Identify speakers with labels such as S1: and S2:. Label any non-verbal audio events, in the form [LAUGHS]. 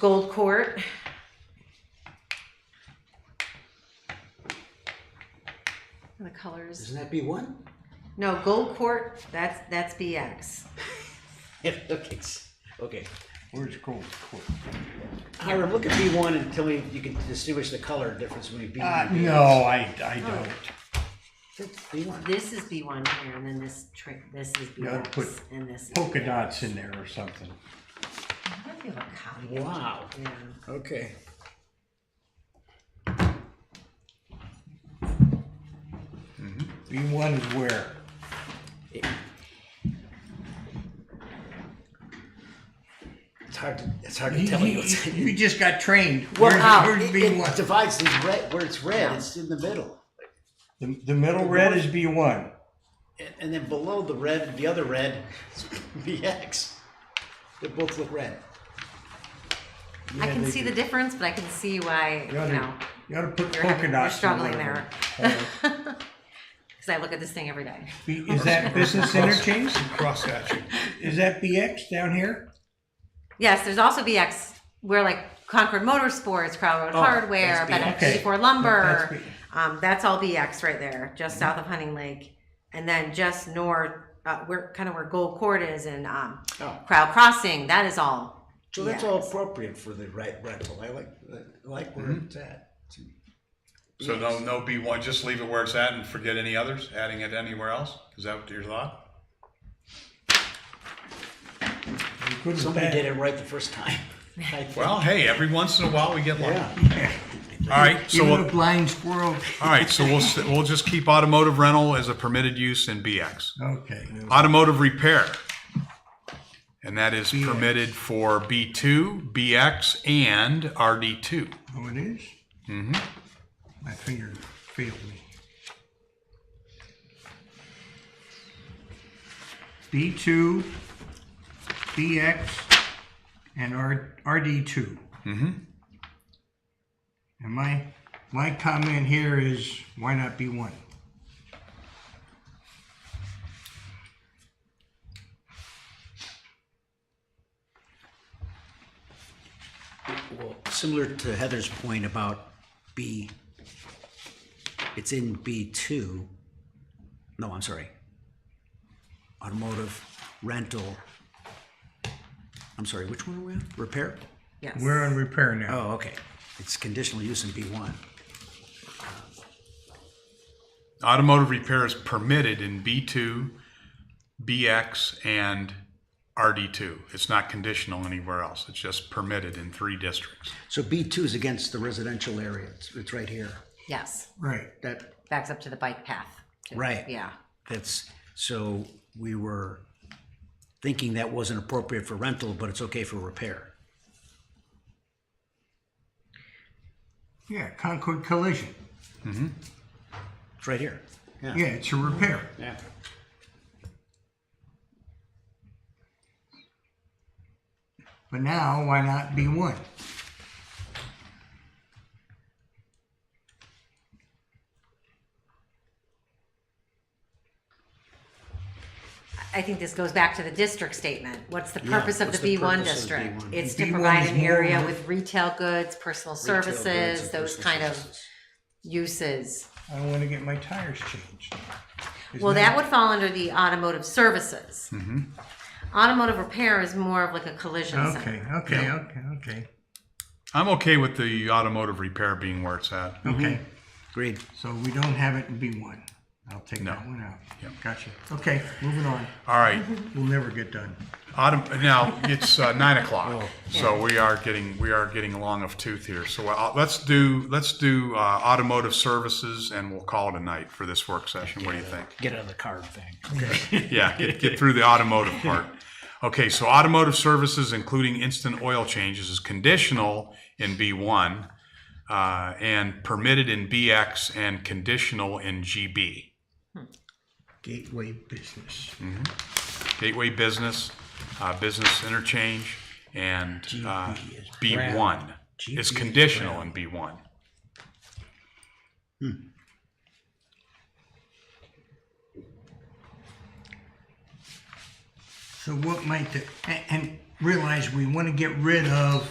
S1: Gold Court. And the colors.
S2: Doesn't that be one?
S1: No, Gold Court, that's, that's BX.
S2: [LAUGHS] Yeah, okay. s- Okay.
S3: Where's Gold Court?
S2: Hiram, look at B one and tell me if you can distinguish the color difference between B
S3: Uh,
S2: and B.
S3: no, I, I don't.
S2: B one.
S1: This is B1 here, and then this trick, this is
S3: Yeah, I'd put
S1: BX, and this. is
S3: Polka
S1: BX.
S3: dots in there or something.
S1: I feel like copy.
S2: Wow.
S1: Yeah.
S2: Okay.
S3: B one is where?
S2: It's hard to it's hard to [LAUGHS]
S3: You,
S2: tell you what's
S3: you- you just got trained.
S2: Well,
S3: Where's-
S1: out.
S3: Where's
S2: it,
S3: B one?
S2: it divides these red where it's red, it's in the middle.
S3: The, the middle red is B one.
S2: And, and then below the red, the other red, [LAUGHS] is BX. They both look red.
S1: I can see the difference, but I can see why, you
S3: You ought
S1: know,
S3: to, you ought to put
S1: you're,
S3: polka
S1: having- you're
S3: dots. in
S1: struggling
S3: one
S1: there.
S3: of them. [LAUGHS] Uh,
S1: Because I look at this thing every day.
S3: B- Is that business interchange?
S4: Cross hatching.
S3: Is that BX down here?
S1: Yes, there's also BX where like Concord Motorsports, Crowd Road
S2: Oh,
S1: Hardware,
S2: that's BX.
S1: Bennett
S3: Okay.
S1: 54
S3: That's
S1: Lumber.
S3: B-
S1: Um, that's all BX right there, just south of Hunting Lake. And then just north, uh, where kind of where Gold Court is and um,
S2: Oh.
S1: Crowd Crossing, that is all.
S2: So that's all appropriate for the right rental. I like I like where it's at.
S4: So no, no B one, just leave it where it's at and forget any others, adding it anywhere else? Is that your thought?
S3: you couldn't
S2: Somebody
S3: bet.
S2: did it right the first time. I think.
S4: Well, hey, every once in a while we get lucky.
S2: Yeah.
S4: All right, so
S3: Even
S4: we'll,
S3: a blind squirrel.
S4: all right, so we'll, s- we'll just keep automotive rental as a permitted use in BX.
S3: Okay.
S4: Automotive repair. And that is permitted for B two, BX, and RD two.
S3: Oh, it is? Mm-hmm. My finger failed me. B two, BX, and R, RD 2 Mm-hmm. And my, my comment here is, why not B one?
S2: Well, similar to Heather's point about B, it's in B2. No, I'm sorry. Automotive, rental. I'm sorry, which one are we on? Repair?
S1: Yes.
S3: We're on repair now.
S2: Oh, okay. It's conditional use in B1.
S4: Automotive repair is permitted in B2, BX, and RD2. It's not conditional anywhere else. It's just permitted in three districts.
S2: So B2 is against the residential area. It's, it's right here.
S1: yes.
S3: Right.
S2: That,
S1: Backs up to the bike path.
S2: right.
S1: Yeah.
S2: That's, so we were thinking that wasn't appropriate for rental, but it's okay for repair.
S3: Yeah, Concord collision.
S2: It's right here.
S3: Yeah, it's a repair.
S2: Yeah.
S3: But now, why not B one?
S1: I think this goes back to the district statement. What's the
S2: Yeah,
S1: purpose of
S2: what's
S1: the
S2: the
S1: B one
S2: purpose of
S1: district?
S2: B1?
S1: It's to
S3: B1
S1: provide
S3: is
S1: an
S3: more
S1: area
S3: of-
S1: with retail goods, personal services, those kind of uses.
S3: I want to get my tires changed. Isn't
S1: Well, that would fall under the automotive services. Automotive repair is more of like a collision
S3: Okay,
S1: center.
S3: okay, okay, okay,
S4: I'm okay with the automotive repair being where it's at.
S3: okay.
S2: Agreed.
S3: So we don't have it in B one. I'll take
S4: No.
S3: that one out. Gotcha. Okay, moving on.
S4: All right.
S3: We'll never get done.
S4: Autom- now it's uh, nine o'clock, so we are getting we are getting long of tooth here. So uh, let's do let's do uh, automotive services, and we'll call it a night for this work session. What do you think?
S2: Get out of the card thing.
S4: yeah, get, get through the automotive part. Okay, so automotive services, including instant oil changes, is conditional in B1 uh, and permitted in BX and conditional in GB.
S3: Gateway business.
S4: Gateway business, uh, business interchange, and uh, B1 is conditional in B1.
S3: So what might the, a- and realize we want to get rid of